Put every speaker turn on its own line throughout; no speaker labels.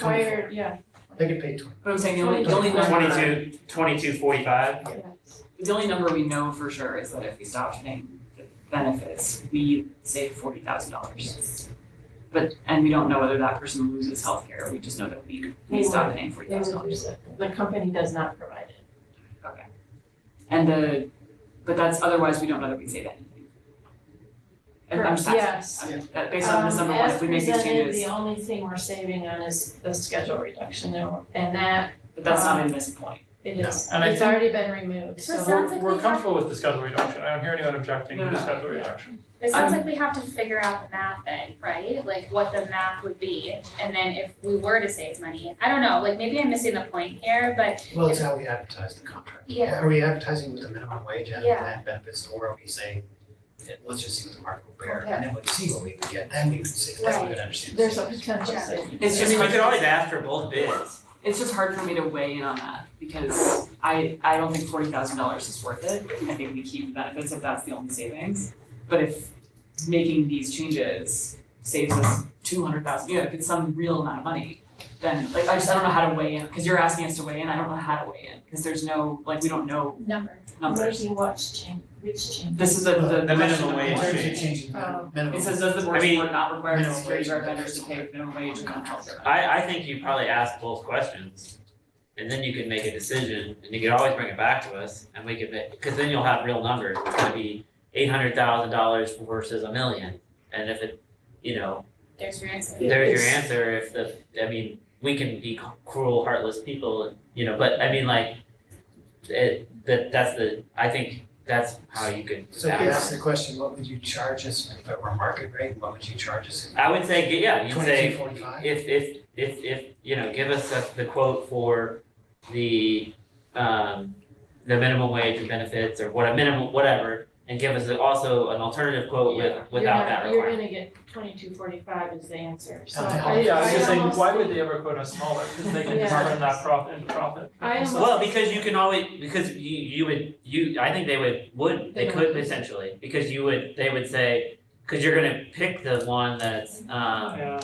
Required, yeah.
They could pay twenty.
But I'm saying the only, the only number.
Twenty-two, twenty-two forty-five,
The only number we know for sure is that if we stop paying the benefits, we save forty thousand dollars. But, and we don't know whether that person loses health care. we just know that we, we stop paying forty
They
thousand
would
dollars.
use it. The company does not provide it.
And the, but that's, otherwise we don't know that we save anything. And I'm just asking,
Yes.
I'm- that based on this number, one, if we make these
Um, as presented,
changes,
the only thing we're saving on is the schedule reduction though, and that
but that's not in this point.
it is,
And I
it's
think-
already been removed,
So it
so.
sounds
we're,
like
we're
we have,
comfortable with the schedule reduction, I don't hear anyone objecting to
No, no,
the
no.
schedule reduction.
it
I'm-
sounds like we have to figure out the math then, right? Like what the math would be, and then if we were to save money, I don't know, like maybe I'm missing the point here, but
Well, it's how we advertise the contract.
Yeah.
Are we advertising with the minimum wage and
Yeah.
plan benefits, or are we saying, eh, let's just see what the market will bear, and then we'll see what we can get, then we can see, then we
Right.
can understand.
There's a potential
Yeah.
saving.
It's
I
just.
mean, we could always ask for both bids.
It's just hard for me to weigh in on that because I I don't think forty thousand dollars is worth it. I think we keep the benefits if that's the only savings. But if making these changes saves us two hundred thousand, you know, if it's some real amount of money, then like I just I don't know how to weigh in, because you're asking us to weigh in, I don't know how to weigh in, because there's no, like, we don't know
number.
numbers.
Where's the watch change, which change?
This is the the
The minimum
question number
wage
In
one.
terms of
change.
changing the
Oh.
minimum.
It says, does the
I
board
mean,
support not require
minimum
employees
wage
or
and
vendors to
benefits.
pay minimum wage and health care?
I, I think you probably ask both questions, and then you can make a decision, and you can always bring it back to us, and we can make, cause then you'll have real numbers, it's gonna be eight hundred thousand dollars versus a million, and if it, you know,
There's your answer.
there's your
It's-
answer, if the, I mean, we can be cruel, heartless people, you know, but I mean, like, it, that, that's the, I think that's how you could
So if you ask
ask.
the question, what would you charge us if it were market rate, what would you charge us?
I would say, yeah, you'd say,
Twenty-two forty-five?
if if if if, you know, give us the- the quote for the um the minimum wage and benefits or what a minimum, whatever, and give us also an alternative quote
Yeah.
with without that
You're not, you're
requirement.
gonna get twenty-two forty-five is the answer, so
Okay.
I,
Yeah, I was
I
just saying,
almost-
why would they ever quote us smaller, cause they can
Yeah.
turn that profit into profit.
I almost-
Well, because you can always, because you you would, you, I think they would would, they could potentially, because you would, they would say, cause you're gonna pick the one that's um
Yeah,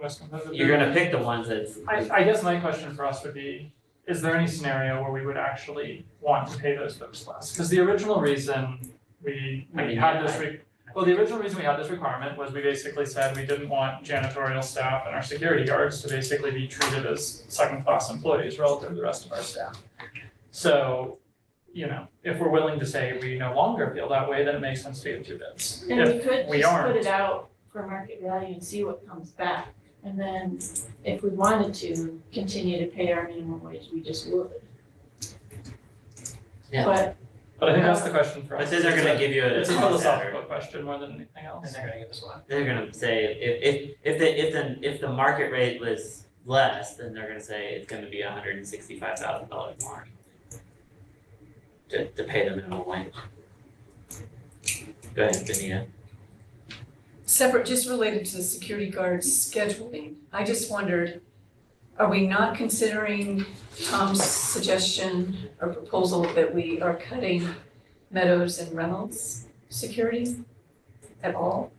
less competitive.
you're gonna pick the ones that's
I, I guess my question for us would be, is there any scenario where we would actually want to pay those folks less? Because the original reason we,
I
we
mean,
had
yeah,
this re- well, the original reason we had this requirement was we basically said we didn't want janitorial staff and our security guards to basically be treated as second-class employees relative to the rest of our staff. So, you know, if we're willing to say we no longer feel that way, then it makes sense to give two bids.
And
If-
we could
we
just put
aren't-
it out for market value and see what comes back. And then if we wanted to continue to pay our minimum wage, we just would.
Yeah.
But
But I think that's the question for us.
but then they're gonna give you a
It's a
cost average.
philosophical question more than anything else.
And they're gonna give us what?
they're gonna say if if if the if the if the market rate was less, then they're gonna say it's gonna be a hundred and sixty five thousand dollars more. To to pay the minimum wage. Go ahead, Benita.
Separate, just related to the security guards scheduling, I just wondered, are we not considering Tom's suggestion or proposal that we are cutting Meadows and Reynolds security at all?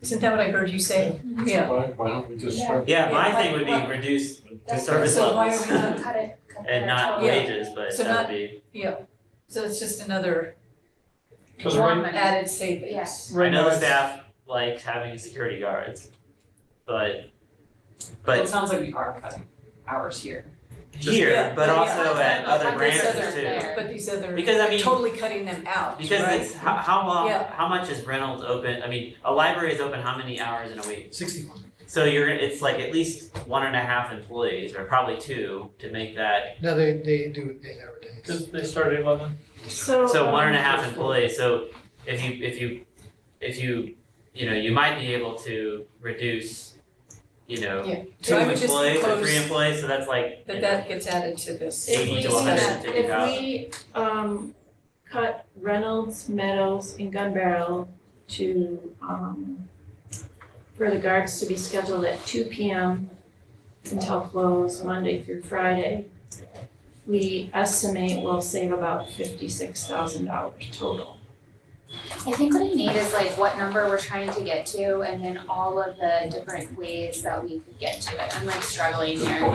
Isn't that what I heard you say?
Mm-hmm.
Yeah.
Why, why don't we just start?
Yeah, my
Yeah,
thing would be
like,
reduce the
That's-
service
So why are
levels
we not-
Cut it, cut
and not
Yeah.
wages, but
So
that
not-
would be.
So it's just another
Cause right,
added savings.
right now
I know the
it's-
staff likes having security guards, but
Well,
but
It sounds like we are cutting hours here.
here,
Yeah,
but
yeah,
also
I-
at
I-
other
I
branches
guess
too.
other- But these other,
Because I mean-
totally cutting them out, right?
Because it's, how, how long,
Yeah.
how much is Reynolds open, I mean, a library is open how many hours in a week?
Sixty-one.
So you're, gonna- it's like at least one and a half employees, or probably two, to make that,
No, they, they do eight hour days.
Cause they started at eleven.
so.
so
Oh,
one and a
um,
half employees, so if you, if you, if you, you know, you might be able to reduce, you
Yeah.
know, two
So I would just
employees or three
propose
employees, so that's like, you
that
know,
that gets added to this.
If we
eighty to
do
hundred
that,
and fifty thousand.
If we, um, cut Reynolds, Meadows, and Gun Barrel to, um, for the guards to be scheduled at two P M until close Monday through Friday, we estimate we'll save about fifty-six thousand dollars total.
I think what I need is like what number we're trying to get to and then all of the different ways that we could get to it. I'm like struggling here.